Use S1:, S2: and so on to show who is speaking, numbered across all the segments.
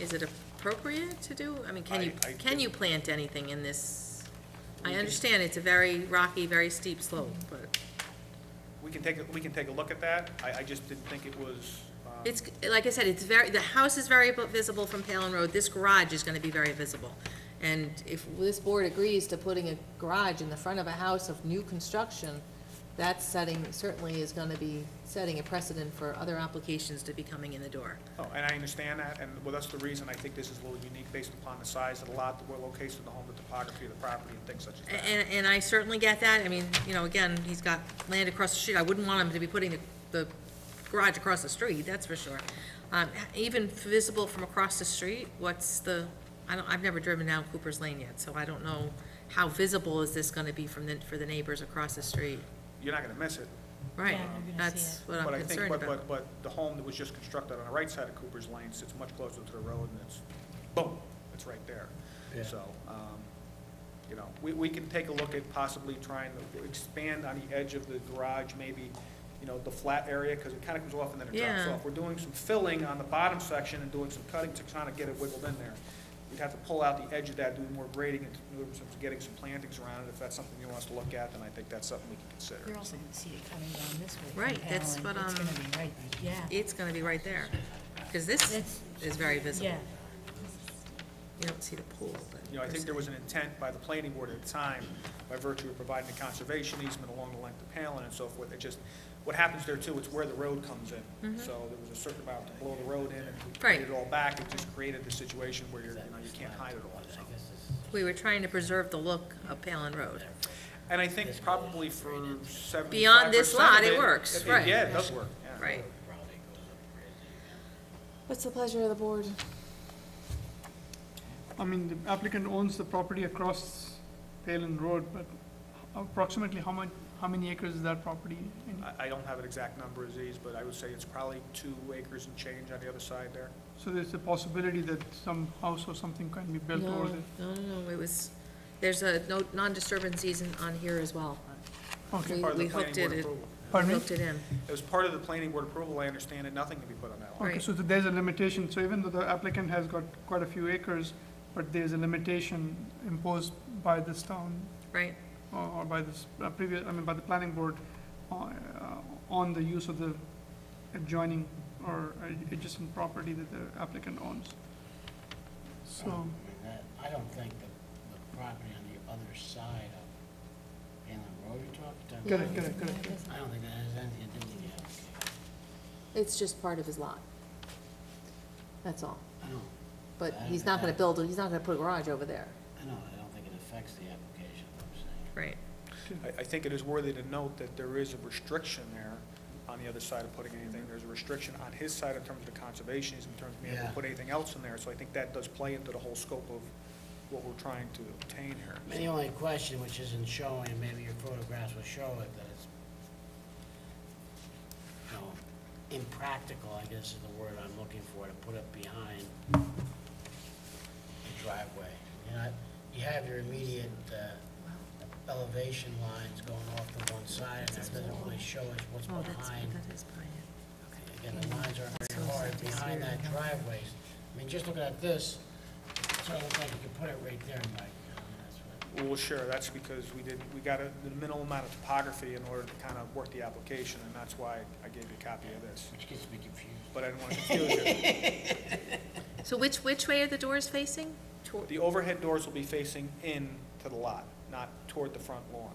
S1: is it appropriate to do? I mean, can you,
S2: I- I
S1: can you plant anything in this? I understand it's a very rocky, very steep slope, but
S2: We can take, a- we can take a look at that. I, I just didn't think it was, um,
S1: it's, like I said, it's very, the house is very bu- visible from Palin Road. This garage is gonna be very visible. And if this board agrees to putting a garage in the front of a house of new construction, that setting certainly is gonna be setting a precedent for other applications to be coming in the door.
S2: oh, and I understand that, and well, that's the reason I think this is a little unique based upon the size of the lot, the location of the home, the topography of the property, and things such as that.
S1: And, and I certainly get that, I mean, you know, again, he's got land across the street, I wouldn't want him to be putting the, the garage across the street, that's for sure. Um, even visible from across the street, what's the, I don't, I've never driven down Cooper's Lane yet, so I don't know how visible is this gonna be from the, for the neighbors across the street?
S2: You're not gonna miss it.
S1: Right,
S3: Yeah, you're gonna see
S1: that's
S3: it.
S1: what
S2: But
S1: I'm
S2: I think,
S1: concerned
S2: but,
S1: about.
S2: but, but the home that was just constructed on the right side of Cooper's Lane sits much closer to the road, and it's, boom, it's right there.
S4: Yeah.
S2: So, um, you know, we, we can take a look at possibly trying to expand on the edge of the garage, maybe, you know, the flat area, because it kind of comes off and then it drops
S1: Yeah.
S2: off. We're doing some filling on the bottom section and doing some cutting to kind of get it wiggled in there. We'd have to pull out the edge of that, do more grading, and do some- getting some plantings around it. If that's something you want us to look at, then I think that's something we can consider.
S3: You're also gonna see it coming down this way. from
S1: Right, that's
S3: Allen.
S1: what,
S3: It's
S1: um,
S3: gonna be right, yeah.
S1: It's gonna be right there, because this
S3: That's-
S1: is very visible.
S3: Yeah,
S1: You don't see the pool, but.
S2: You know, I think there was an intent by the planning board at the time, by virtue of providing a conservation easement along the length of Palin and so forth. It just, what happens there too, it's where the road comes in. So there was a certain amount to blow the road in, and we
S1: Mm-hmm. Right.
S2: created it all back, it just created the situation where you're, you know, you can't hide it all, so.
S1: We were trying to preserve the look of Palin Road.
S2: And I think probably for seventy-five percent
S1: Beyond this lot, it works, right.
S2: Yeah, it does work, yeah.
S1: Right.
S5: What's the pleasure of the board?
S6: I mean, the applicant owns the property across Palin Road, but approximately how much, how many acres is that property? And
S2: I, I don't have an exact number of these, but I would say it's probably two acres and change on the other side there.
S6: So there's a possibility that some house or something can be built
S1: No,
S6: over there?
S1: no, no, no, it was, there's a no, non-disturbance season on here as well.
S6: Okay,
S1: We-
S2: Part of the
S1: we
S2: planning
S1: hooked
S2: board
S1: it- it-
S2: approval.
S6: pardon me?
S1: Hooked it in.
S2: It was part of the planning board approval, I understand, and nothing can be put on that lot.
S6: Okay,
S1: Right.
S6: so th- there's a limitation, so even though the applicant has got quite a few acres, but there's a limitation imposed by this town
S1: right?
S6: or or by the s- uh, previous, I mean, by the planning board uh, uh, on the use of the adjoining or adjacent property that the applicant owns.
S7: I
S6: So,
S7: mean, that- I don't think the, the property on the other side of Palin Road you're talking about.
S6: correct, correct, correct.
S7: I don't think that has anything to do with the application.
S5: It's just part of his lot. That's all.
S7: I don't,
S5: But he's not gonna build, he's not gonna put a garage over there.
S7: I don't, I don't think it affects the application, what I'm saying.
S1: Right.
S2: I, I think it is worthy to note that there is a restriction there on the other side of putting anything. There's a restriction on his side in terms of the conservation, in terms of being able to
S7: Yeah.
S2: put anything else in there. So I think that does play into the whole scope of what we're trying to obtain here.
S7: I mean, The only question, which isn't showing, and maybe your photographs will show it, that it's, you know, impractical, I guess is the word I'm looking for, to put up behind the driveway. You know, you have your immediate uh, elevation lines going off to one side, and that doesn't really show us what's
S1: Oh, that's,
S7: behind.
S1: that is Brian.
S7: Again, the lines aren't very hard behind that driveway. I mean, just looking at this, it sort of looks like you could put it right there, Mike. I mean, that's what-
S2: Well, sure, that's because we did, we got a, the minimal amount of topography in order to kind of work the application, and that's why I gave you a copy of this.
S7: Which gets me confused.
S2: But I didn't want to confuse you.
S1: So which, which way are the doors facing? Toward-
S2: The overhead doors will be facing in to the lot, not toward the front lawn.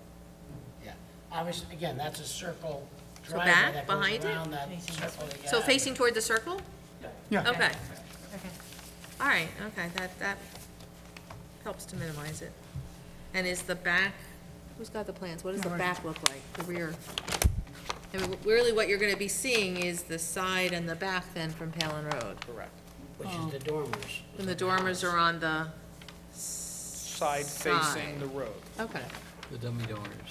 S7: Yeah, obviously, again, that's a circle
S1: So
S7: driveway
S1: back,
S7: that
S1: behind
S7: goes
S1: it?
S7: around that
S3: Facing this
S7: circle. that you
S1: So
S7: have.
S1: facing toward the circle?
S6: yeah.
S1: Okay,
S3: okay.
S1: all right, okay, that, that helps to minimize it. And is the back, who's got the plans? What does the back look like, the rear? I mean, really what you're gonna be seeing is the side and the back then from Palin Road.
S2: Correct.
S7: Which is the dormers.
S1: And the dormers are on the,
S2: Side facing the road.
S1: okay.
S4: The dummy donors.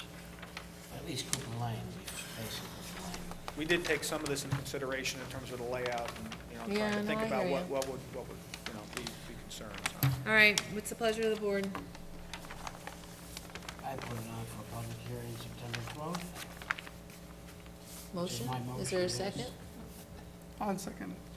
S7: At least Cooper Lane, facing Cooper Lane.
S2: We did take some of this into consideration in terms of the layout and, you know,
S1: Yeah,
S2: trying
S1: no,
S2: to think
S1: I
S2: about
S1: hear
S2: what,
S1: you.
S2: what would, what would, you know, be, be concerns. huh?
S1: All right, what's the pleasure of the board?
S7: I put it on for public hearing September twelfth.
S5: Motion?
S7: my
S5: Is there a
S7: motion, yes.
S5: second?
S6: I'll second it.